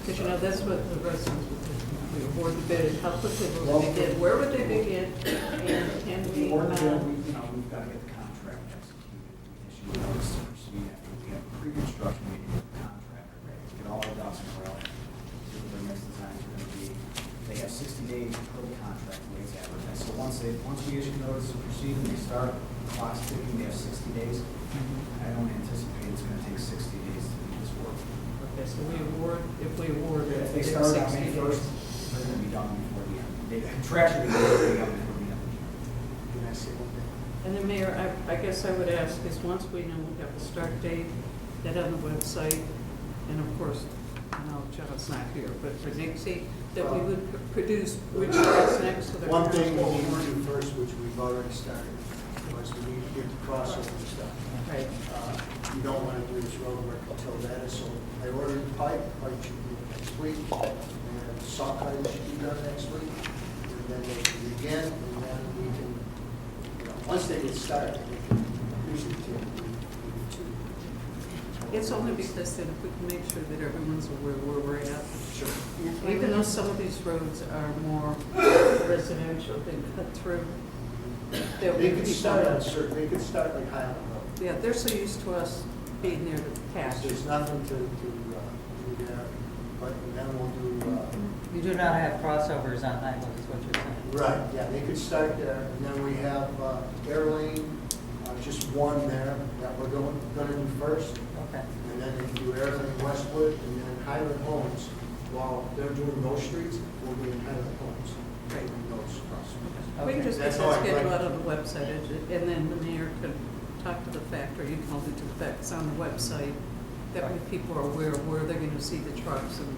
Because you know, that's what the residents would do. We award the bid, and how quickly will they begin, where would they begin, and can The we, order that um, we, you know, we've got to get the contract executed, we issue notice to proceed after we have a pre-construction meeting with the contractor, right? Get all the dots in a row, see what their next designs are gonna be. They have sixty days per the contract ways advertised, so once they, once we issue notice to proceed and they start clock ticking, they have sixty days. I don't anticipate it's gonna take sixty days to do this work. okay, so we award, if we award it, If they it's start on 60 May days. first, they're gonna be done before the end, they contractually, they're gonna be done before the end of the year. Can I say one thing? And then Mayor, I, I guess I would ask is once we know we have a start date, that on the website, and of course, now John's not here, but for Nixie, that we would pr- produce which is next to the. One thing we council. need to do first, which we've already started, was we need to get the crossover stuff. Right, Uh, You don't want to do this road work until that is sold. I ordered pipe, pipe should be next week, and saw cutting should be done next week. And then they can begin, and then we can, you know, once they get started, we can usually take a week, maybe two. it's only because then if we can make sure that everyone's aware where we're at, Sure. Even though some of these roads are more residential, they cut through. there They would could be start on some- certain, they could start like Highland Road. Yeah, they're so used to us being near the Yes, cash. There's nothing to, to, uh, do there, but then we'll do, uh, You do not have crossovers on highways, is what you're saying? right, yeah, they could start there, and then we have, uh, Airlane, uh, just one there that we're going, gonna do first, Okay. and then they do Airlane Westwood, and then Highland Homes, while they're doing those streets, we'll be in Highland Homes, Right. doing those crosswalks. We can just get That's all this I'd schedule like. out on the website, and ju- and then the mayor could talk to the fact, or you can all do to the fact, it's on the website, that way people are aware of where they're gonna see the trucks and,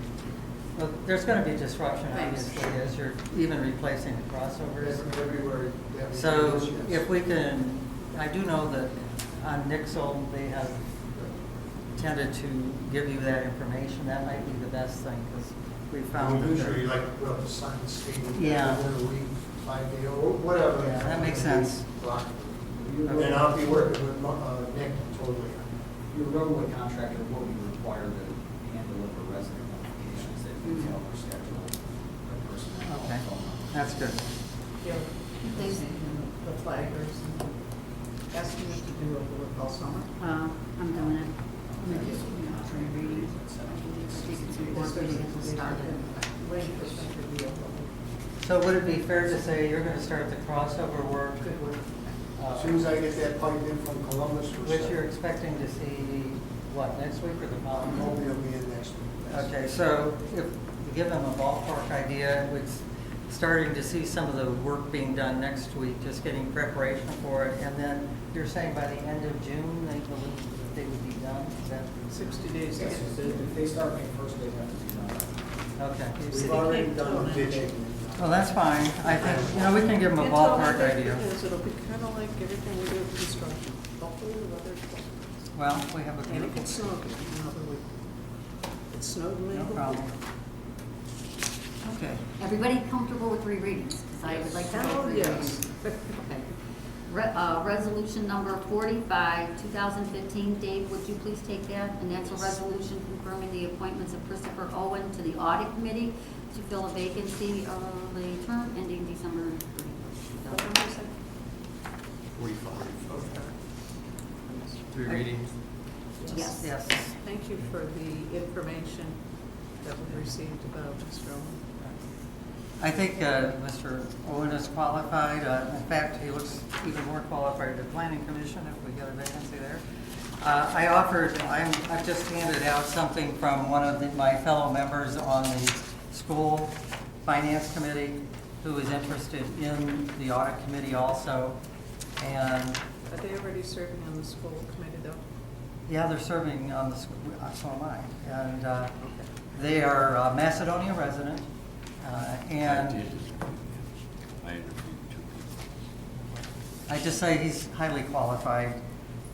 Well, there's going to be disruption, Thanks. obviously, as you're even replacing the crossovers. Everywhere that we do So this, yes. if we can, I do know that on Nixle, they have tended to give you that information. That might be the best thing, because we found that. Usually they're- like put up a sign stating. Yeah. Whether we five day or whatever. Yeah, that makes sense. Block. And I'll be working with Mo- uh, Nick totally. Your roadway contractor will be required to hand deliver resident notifications that detail their schedule, their personnel, Okay, phone number. that's good. you know, the flaggers and asking them to do a little all summer. Well, I'm doing it. I'm gonna just, you know, try reading. uh, I think it's important to get this started. Wait for them to be able So would it be fair to say you're going to start the crossover work, to- Good work. uh, As soon as I get that pipe in from Columbus. we'll which start. you're expecting to see, what, next week or the following? I'm week? hoping it'll be in next week. That's- Okay, so if, give them a ballpark idea, we're starting to see some of the work being done next week, just getting preparation for it, and then you're saying by the end of June, they believe that they would be done, is that? Sixty days uh, to Yes, get if the they- if they start May first, they have to be done. Okay, We've already done the ditching. well, that's fine, I think, you know, we can give them a ballpark idea. Because it'll be kind of like everything we do with construction, the whole weather. Well, we have a And it beautiful, could snow again another week. It snowed in no Lincoln. problem. Okay, Everybody comfortable with three readings? Because I would like to take Oh, three yes. readings. Okay. Re- uh, Resolution number 45, 2015. Dave, would you please take that? And that's a resolution confirming the appointments of Christopher Owen to the Audit Committee to fill a vacancy of the term ending December 31st. Three readings. Yes. yes, Thank you for the information that we received about Mr. Owen. I think uh, Mr. Owen is qualified, Uh, in fact, he looks even more qualified to planning commission if we get a vacancy there. Uh, I offered, I'm, I've just handed out something from one of the- my fellow members on the school finance committee who is interested in the audit committee also, and Are they already serving on the school committee though? yeah, they're serving on the, school- uh, so am I. And uh, they are uh, Macedonia resident, uh, I and did. I interviewed two people. I just say he's highly qualified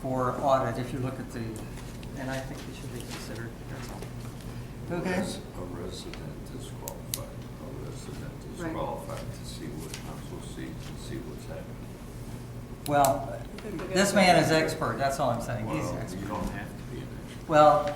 for audit if you look at the, and I think he should be considered, that's all. Okay? Res- A resident is qualified, a resident is Right. qualified to see what council sees and see what's happening. Well, this man is expert, that's all I'm saying, he's Well, you expert. don't have to be an expert. Well,